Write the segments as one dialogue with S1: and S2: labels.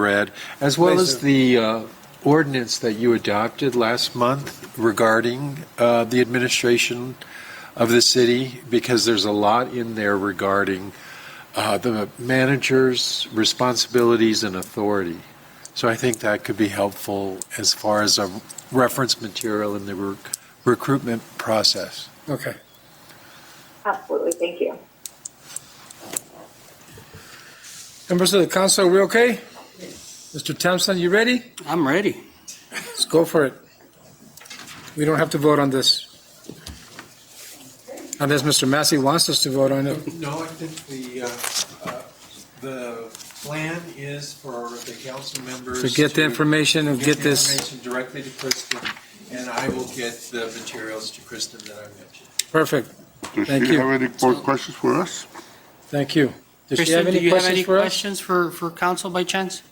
S1: read, as well as the uh, ordinance that you adopted last month regarding uh, the administration of the city, because there's a lot in there regarding uh, the manager's responsibilities and authority. So I think that could be helpful as far as a reference material in the rec- recruitment process.
S2: Okay.
S3: Absolutely, thank you.
S2: Members of the council, are we okay? Mr. Thompson, you ready?
S4: I'm ready.
S2: Let's go for it. We don't have to vote on this. Unless Mr. Massey wants us to vote on it.
S1: No, I think the, uh, the plan is for the council members.
S2: So get the information and get
S1: the
S2: this,
S1: Information directly to Kristen, and I will get the materials to Kristen that I mentioned.
S2: perfect.
S5: Does
S2: Thank
S5: she
S2: you.
S5: have any more questions for us?
S2: Thank you. Does she have
S4: Kristen, do
S2: any
S4: you have any
S2: questions for us?
S4: questions for, for council by chance?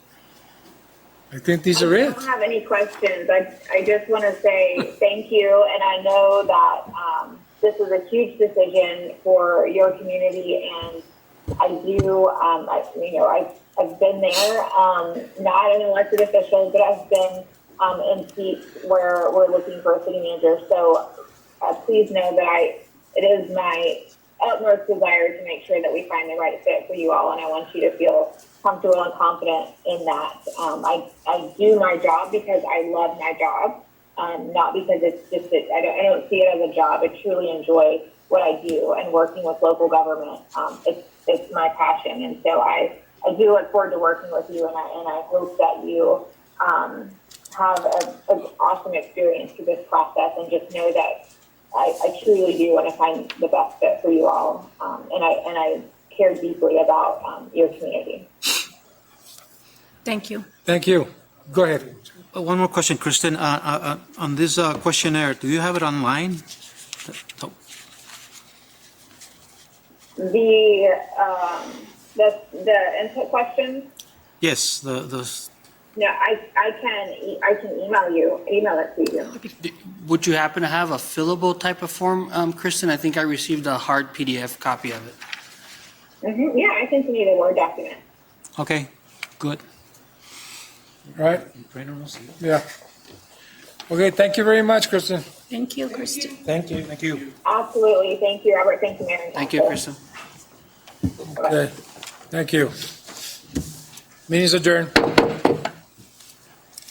S2: I think these are
S3: I
S2: it.
S3: don't have any questions. I, I just want to say thank you, and I know that um, this is a huge decision for your community, and I do, um, I, you know, I, I've been there, um, not an elected official, but I've been um, in seats where we're looking for a city manager. So uh, please know that I, it is my utmost desire to make sure that we find the right fit for you all, and I want you to feel comfortable and confident in that. Um, I, I do my job because I love my job, um, not because it's just that I don't, I don't see it as a job. I truly enjoy what I do and working with local government. Um, it's, it's my passion, and so I, I do look forward to working with you, and I, and I hope that you um, have a, an awesome experience through this process, and just know that I, I truly do want to find the best fit for you all, um, and I and I care deeply about um, your community.
S6: Thank you.
S2: Thank you. Go ahead.
S4: Uh, One more question, Kristen, uh, uh, uh, on this uh, questionnaire, do you have it online? Oh,
S3: The um, the the input question.
S4: Yes, the, the,
S3: No, I I can e- I can email you email it to you.
S4: would you happen to have a fillable type of form, um, Kristen? I think I received a hard PDF copy of it.
S3: hmm Yeah, I can send you the word document.
S4: Okay, good.
S2: All right? Yeah. Okay, thank you very much, Kristen.
S6: Thank you, Kristen.
S2: Thank you. Thank you.
S3: Absolutely. Thank you, Robert. Thank you, Mayor. and
S4: Thank you,
S3: Council.
S4: Kristen.
S2: Okay, thank you. Meeting's adjourned.